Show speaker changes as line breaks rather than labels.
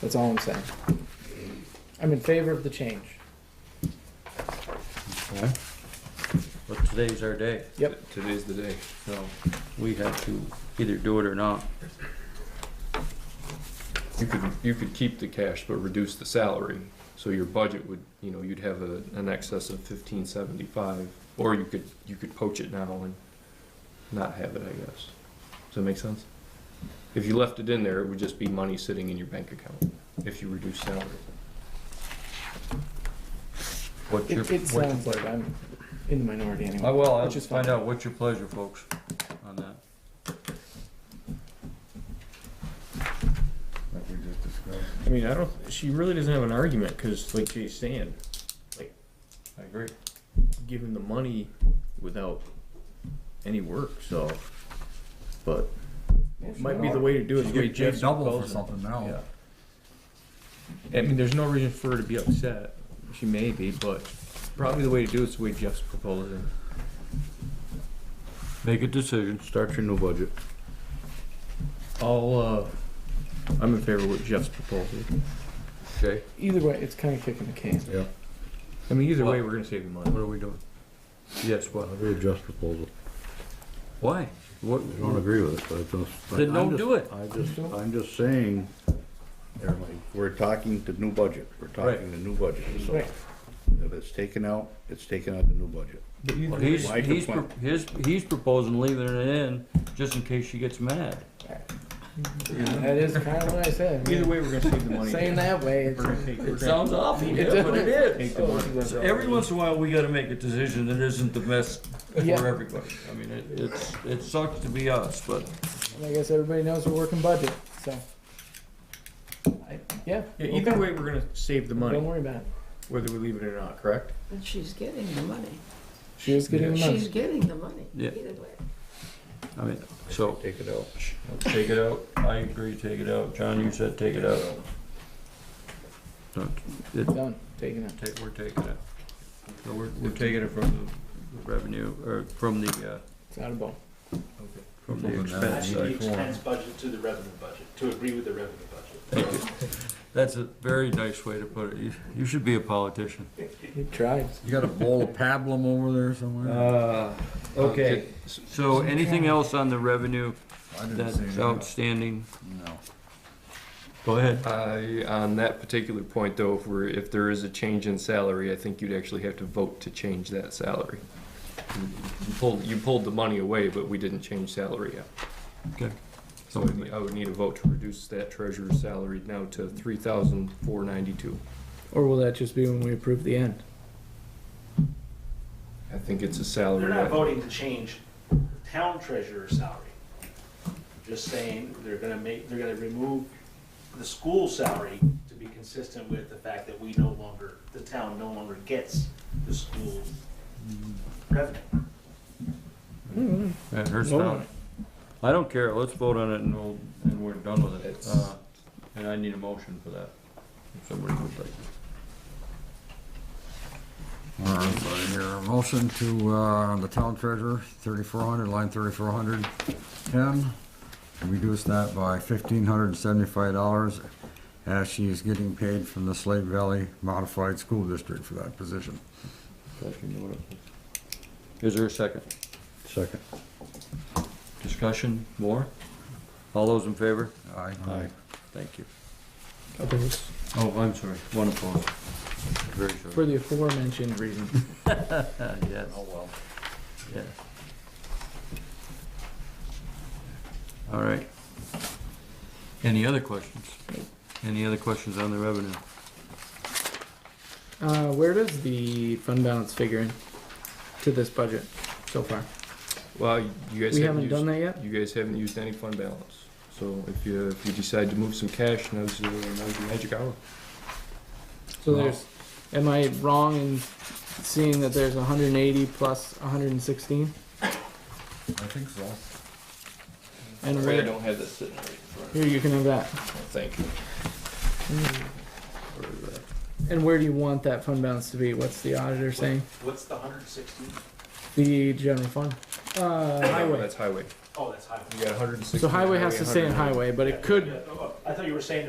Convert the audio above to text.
That's all I'm saying. I'm in favor of the change.
Okay. But today's our day,
Yep.
Today's the day.
so we have to either do it or not.
You could, you could keep the cash but reduce the salary, so your budget would, you know, you'd have a, an excess of fifteen seventy-five. Or you could, you could poach it now and not have it, I guess. Does that make sense? If you left it in there, it would just be money sitting in your bank account, if you reduce salary. What's your? oh,
It, it
what's your
sounds like
pleasure?
I'm in the minority
I
anyway.
will, I'll
Which is
just find
fine.
out what's your pleasure, folks, on that.
that we just discussed.
I mean, I don't, she really doesn't have an argument, cause like she's saying,
I agree.
give him the money without any work, so. But it might be the way to do it, is the way
Give Jim
Jim's
double for
proposing.
something. Oh.
Something now.
Yeah. I mean, there's no reason for her to be upset, she may be, but probably the way to do it's the way Jeff's proposing.
Make a decision, start your new budget.
I'll, uh, I'm in favor of what Jeff's proposing.
Okay,
Either way, it's kind of kicking the can.
Yeah,
I mean, either way,
Well-
we're gonna save the money.
what are we doing? Yes, what?
I agree with Jeff's proposal.
Why? What,
I don't agree with it, but I just.
Then
I'm
don't
just-
do it.
I just, I'm just saying, everybody, we're talking the new budget, we're talking the new budget. So
Right.
If it's taken out, it's taken out of the new budget.
Well, He's,
Why
he's,
complain?
pro- his, he's proposing leaving it in, just in case she gets mad.
That is kind of what I said.
Either way, we're gonna save the money.
Saying that way, it's.
We're gonna take, we're
It
gonna
sounds awful,
It
yeah, but it
take
is.
the money.
So Every once in a while, we gotta make a decision that isn't the best for
Yeah.
everybody. I mean, it, it's, it sucks to be us, but
And I guess everybody knows we're working budget, so. Yeah.
Yeah, either
okay.
way, we're gonna save the
Don't
money,
worry about it.
whether we leave it or not, correct?
But she's getting the money.
She is getting the
She's
money.
getting the money,
Yeah.
either way.
I mean, so,
Take it out.
take it out. I agree, take it out. John, you said take it out. Don't- it-
Done, taking it.
take- we're taking it. So we're, we're taking it from the revenue, or from the, uh,
It's out of bone.
from the
From the-
expense
Actually, the
side.
expense budget to the revenue budget, to agree with the revenue budget.
That's a very nice way to put it. You- You should be a politician.
He tried.
You got a bowl of pablum over there somewhere?
Uh,
Okay. So anything else on the revenue
I didn't see
that's
anything.
outstanding?
No.
Go ahead.
I, on that particular point though, if we're, if there is a change in salary, I think you'd actually have to vote to change that salary. You pulled, you pulled the money away, but we didn't change salary yet.
Okay.
So I would need- I would need a vote to reduce that treasurer's salary now to three thousand four ninety-two.
Or will that just be when we approve the end?
I think it's a
They're
salary.
not
item.
voting to change the town treasurer's salary. Just saying, they're gonna make, they're gonna remove the school salary to be consistent with the fact that we no longer, the town no longer gets the school revenue.
That hurts not. I don't care. Let's vote on it and we'll, and we're done with it.
It's-
Uh, And I need a motion for that. If somebody would like.
All right, so your motion to, uh, the town treasurer, thirty-four hundred, line thirty-four hundred, ten, reduce that by fifteen hundred and seventy-five dollars as she is getting paid from the Slate Valley Modified School District for that position.
Is there a second?
Second.
Discussion? More? All those in favor?
Aye.
Thank you.
Others,
Oh, I'm sorry. One opposed. Very sorry.
for the aforementioned reason.
Uh, yes. Oh, well. Yes. All right. Any other questions? Any other questions on the revenue?
Uh, where does the fund balance figure in to this budget so far?
Well, you guys
We haven't
haven't
done
used,
that yet?
you guys haven't used any fund balance. So if you, if you decide to move some cash, now's, the- now's the magic hour.
So
No.
there's, am I wrong in seeing that there's hundred and eighty plus hundred and sixteen?
I think so.
And
Sorry, I
where,
don't have this sitting right in front of me.
here, you can have that.
Thank you.
And where do you want that fund balance to be? What's the auditor saying?
What's the hundred and sixteen?
The general fund, uh, highway.
That's highway.
Oh, that's highway.
You got 160.
So highway has to stay in
100.
highway, but it could
Yeah, oh, I thought you were saying